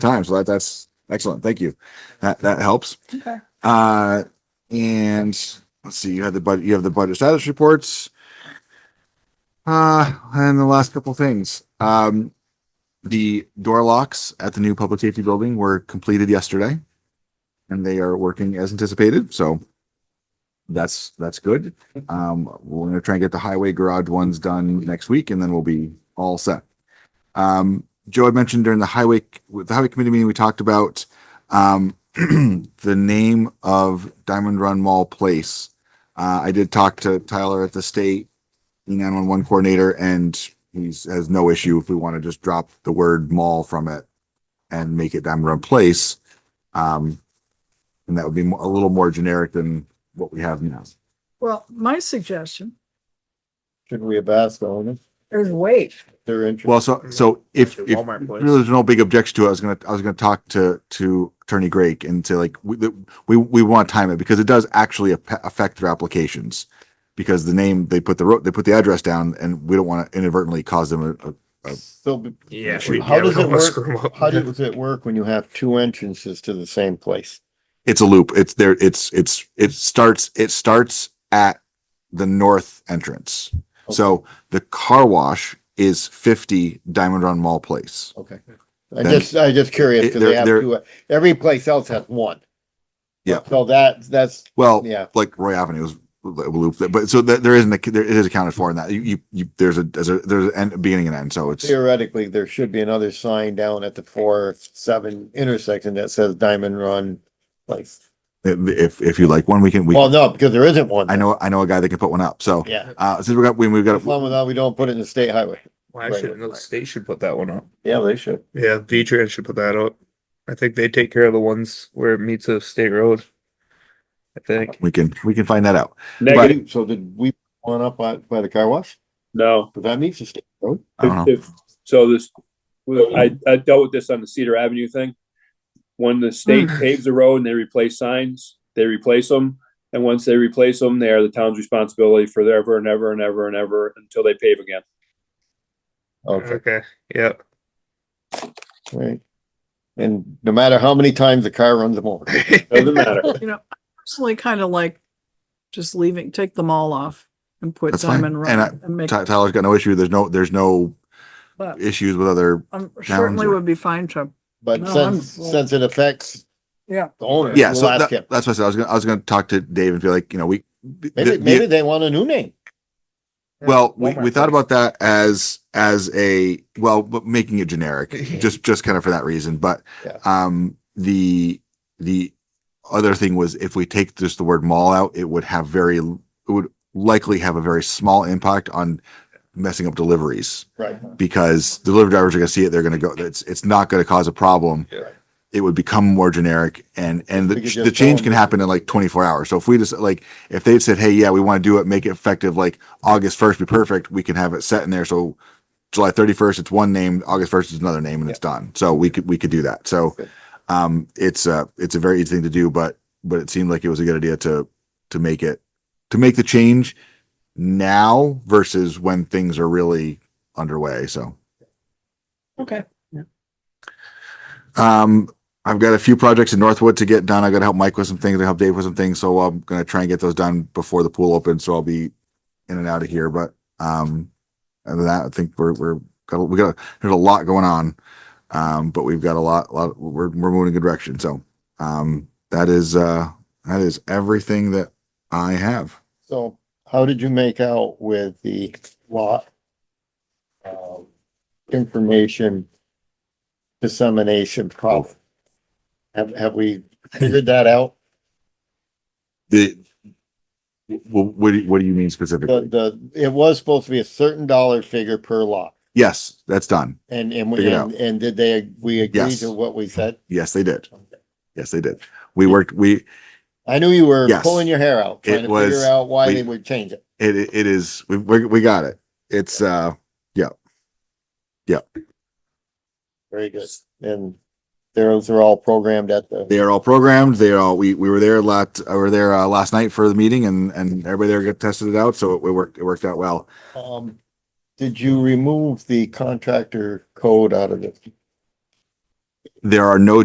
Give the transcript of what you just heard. time. So that, that's excellent. Thank you. That, that helps. Okay. Uh, and let's see, you had the budget, you have the budget status reports. Uh, and the last couple things, um, the door locks at the new public safety building were completed yesterday. And they are working as anticipated, so that's, that's good. Um, we're gonna try and get the highway garage ones done next week and then we'll be all set. Um, Joe had mentioned during the highway, with the highway committee meeting, we talked about, um, the name of Diamond Run Mall Place. Uh, I did talk to Tyler at the state nine one one coordinator, and he's has no issue if we want to just drop the word mall from it and make it Diamond Run Place. Um, and that would be mo- a little more generic than what we have now. Well, my suggestion Should we have asked the owners is wait. if they're interested? Well, so so if if Walmart place. really there's no big objection to it, I was gonna I was gonna talk to to Attorney Greg and say like we the- we we want to time it because it does actually ap- affect their applications because the name they put the road they put the address down and we don't want to inadvertently cause them a, a So, b- Yeah. How does it work? work? how does it work when you have two entrances to the same place? it's a loop it's there it's it's it starts it starts at the north entrance so the car wash is 50 Diamond Run Mall Place Okay. I Then- just, I just curious, It- because they they're- have they're- two, every place else has one. Yeah. Oh. So that, that's, well yeah, like Roy Avenue is a loop there, but so that there isn't a, there it is accounted for in that you you, you there's a there's a there's an end, beginning and end so it's theoretically, there should be another sign down at the four, seven intersection that says Diamond Run place. if if you like one we can we Well, no, because there isn't one. I know I know a guy that can put one up so Yeah. uh since we got when we've got As long as we don't put it in the state highway. Why should another state should put that one up? Yeah, they should. Yeah, V-Trans should put that up. I think they take care of the ones where it meets a state road. I think. we can we can find that out Negative, So did we put one up by, by the car wash? no. Because that meets the state road. I don't know. If- if- So this, well, I, I dealt with this on the Cedar Avenue thing. When the state Hmm. paves the road and they replace signs, they replace them. And once they replace them, they are the town's responsibility for forever and ever and ever and ever until they pave again. Okay. Okay, yeah. Right. And no matter how many times the car runs them over. Doesn't matter. You know, I personally kind of like just leaving, take them all off and put That's fine. Diamond And I- Run and make, Ty- Tyler's got no issue there's no there's no but issues with other I Um, certainly Downs. would be fine to, But No, since, I'm- since it affects yeah. the owner, yeah we'll so ask that, him. that's what I said I was gonna I was gonna talk to Dave and feel like you know we Maybe, the- maybe they want a new name. Well, we, Walmart we thought place. about that as as a well, but making it generic, just just kind of for that reason. But Yeah. um, the the other thing was if we take just the word mall out, it would have very it would likely have a very small impact on messing up deliveries Right. Uh-huh. because delivery drivers are going to see it. They're going to go. It's it's not going to cause a problem. Yeah. It would become more generic, and and the, We could the just change tell can them- happen in like 24 hours. So if we just like if they said, hey, yeah, we want to do it, make it effective like August 1st, be perfect. We can have it set in there. So July 31st, it's one name. August 1st is another name, and it's done. So we could we could do that. So Good. um, it's a it's a very easy thing to do, but but it seemed like it was a good idea to to make it to make the change now versus when things are really underway. So. Okay. Um, I've got a few projects in Northwood to get done. I gotta help Mike with some things, I help Dave with some things, so I'm gonna try and get those done before the pool opens, so I'll be in and out of here, but, um, other than that, I think we're, we're, got, we got, there's a lot going on. Um, but we've got a lot, lot, we're, we're moving in a good direction, so, um, that is, uh, that is everything that I have. So how did you make out with the lot? um, Information dissemination problem? Have, have we figured that out? The, well, what, do you- what do you mean specifically? The, the, it was supposed to be a certain dollar figure per lot. Yes, that's done. And, and, Figured out. and, and did they, we agreed Yes. to what we said? Yes, they did. Yes, they did. We worked, we, I knew you were Yes. pulling your hair out, trying It to was- figure out why we- they would change it. It it is we we we got it. It's uh Very good. And those are all programmed at the, they are all programmed. They are all we we were there lot I were there uh, last night for the meeting and and everybody there got tested it out so it, it worked it worked out well. um, did you remove the contractor code out of it? There are no